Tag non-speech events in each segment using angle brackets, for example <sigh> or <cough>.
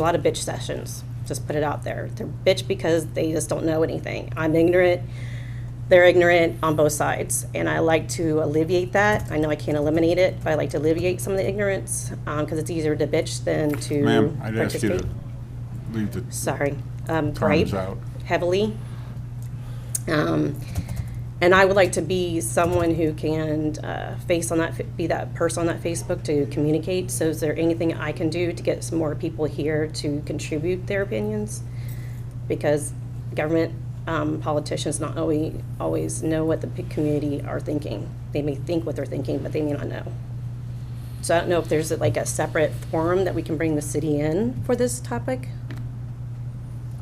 a lot of bitch sessions. Just put it out there. They're bitch because they just don't know anything. I'm ignorant. They're ignorant on both sides, and I like to alleviate that. I know I can't eliminate it, but I like to alleviate some of the ignorance because it's easier to bitch than to Ma'am, I'd ask you participate. to leave the, Sorry, um, Time's gripe out. heavily. Um, and I would like to be someone who can uh, face on that, be that person on that Facebook to communicate. So is there anything I can do to get some more people here to contribute their opinions? Because government um, politicians not always, always know what the p- community are thinking. They may think what they're thinking, but they may not know. So I don't know if there's like a separate forum that we can bring the city in for this topic.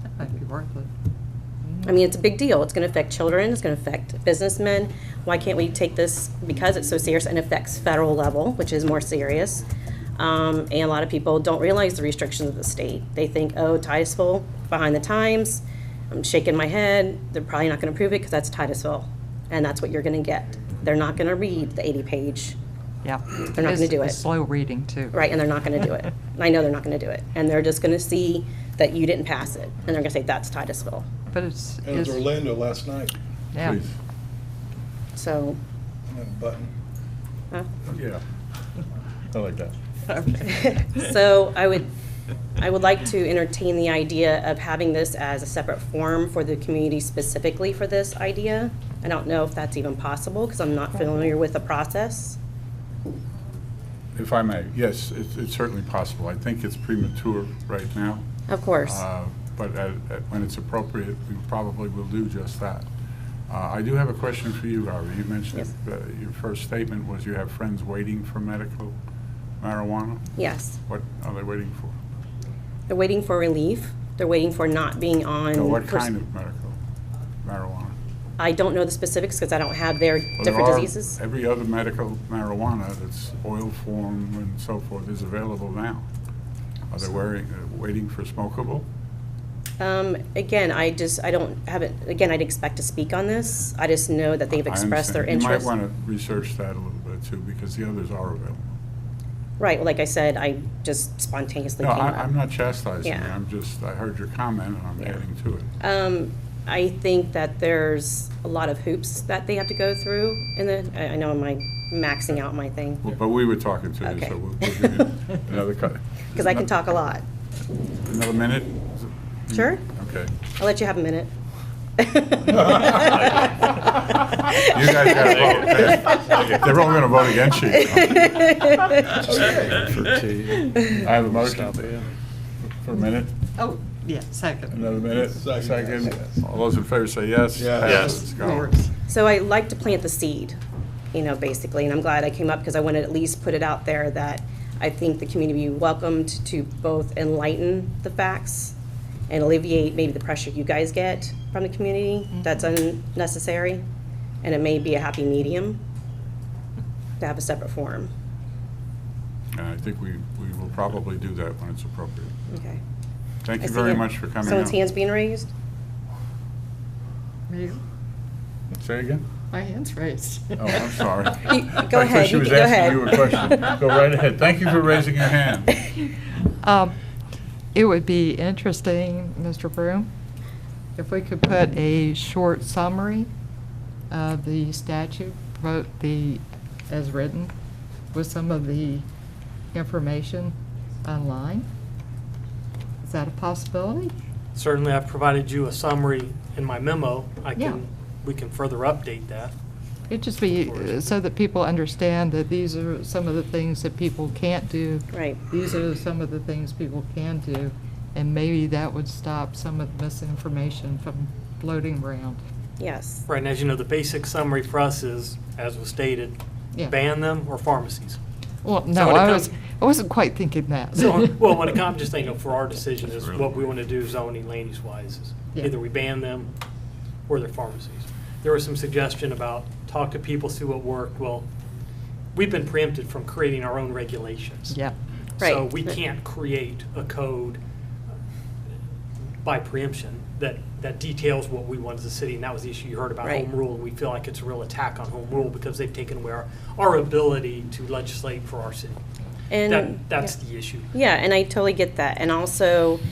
That might be worth it. I mean, it's a big deal. It's going to affect children. It's going to affect businessmen. Why can't we take this because it's so serious and affects federal level, which is more serious? Um, and a lot of people don't realize the restrictions of the state. They think, oh, Titusville behind the times. I'm shaking my head. They're probably not going to approve it because that's Titusville, and that's what you're going to get. They're not going to read the 80 page Yeah. They're not It's gonna do a it. Slow reading, too. right, and they're not going to do <laughs> it. And I know they're not going to do it, and they're just going to see that you didn't pass it, and they're going to say that's Titusville. But it's, It was it's- Orlando last night, yeah. please. So, and Button. huh? Yeah. I like that. <laughs> So I would, I would like to entertain the idea of having this as a separate forum for the community specifically for this idea. I don't know if that's even possible, because I'm not familiar with the process. If I may, yes, it's it's certainly possible. I think it's premature right now, Of course. uh, but at- at- when it's appropriate, we probably will do just that. Uh, I do have a question for you, Harvey. You mentioned Yes. uh, your first statement was you have friends waiting for medical marijuana. Yes. What are they waiting for? They're waiting for relief. They're waiting for not being on. Now, What pers- kind of medical marijuana? I don't know the specifics, because I don't have their Well, there different are- diseases. Every other medical marijuana that's oil form and so forth is available now. Are they wearing, uh, waiting for smokable? Um, again, I just, I don't, haven't, again, I'd expect to speak on this. I just know that they've I expressed their understand. interest. You might want to research that a little bit too, because the others are available. Right, well, like I said, I just spontaneously No, came up. I, I'm not chastising you, Yeah. I'm just, I heard your comment and I'm Yeah. adding to it. Um, I think that there's a lot of hoops that they have to go through, and then, I I know am I maxing out my thing? Well, But we were talking to you, Okay. so we'll we'll give <laughs> <laughs> you another cut. Because I can talk a lot. Another minute? Is it- Sure. Okay. I'll let you have a minute. <laughs> You guys gotta <laughs> vote. They're all gonna vote against you. <laughs> I have a motion. For a minute? Oh, yeah, second. Another minute? Second. Second? All those in favor say yes? Yes. Passes. Yes. Go. Of course. So I like to plant the seed, you know, basically, and I'm glad I came up because I wanted to at least put it out there that I think the community be welcomed to both enlighten the facts and alleviate maybe the pressure you guys get from the community that's Mm-hmm. unnecessary, and it may be a happy medium to have a separate forum. And I think we, we will probably do that when it's appropriate. Okay. Thank I you see very it. much for coming out. Someone's hand's being raised? You? Say again? My hand's raised. Oh, I'm sorry. <laughs> You- I Go thought ahead, she you was can- go ahead. asking you a question. Go right ahead. Thank you for raising your hand. Um, It would be interesting, Mr. Broom, if we could put a short summary of the statute, vote the, as written, with some of the information online. Is that a possibility? Certainly, I've provided you a summary in my memo. I Yeah. can, we can further update that. It'd just be uh, so that people understand that these are some of the things that people can't do. <laughs> Right. These are some of the things people can do, and maybe that would stop some of the misinformation from floating around. Yes. Right, and as you know, the basic summary for us is, as was stated, Yeah. ban them <laughs> or pharmacies. Well, So no, when it I comes- was, I wasn't quite thinking that. So, well, <laughs> when it comes, just thinking for our decision is what we want to do zoning land use wise. is Yeah. Either we ban them or their pharmacies. There was some suggestion about talk to people, see what worked. Well, we've been preempted from creating our own regulations. Yeah, So Right. we can't create a code by preemption that, that details what we want as a city, and that was the issue you heard about Right. home rule. We feel like it's a real attack on home rule because they've taken away our, our ability to legislate for our city. And- That, that's the issue. Yeah, and I totally get that. And also,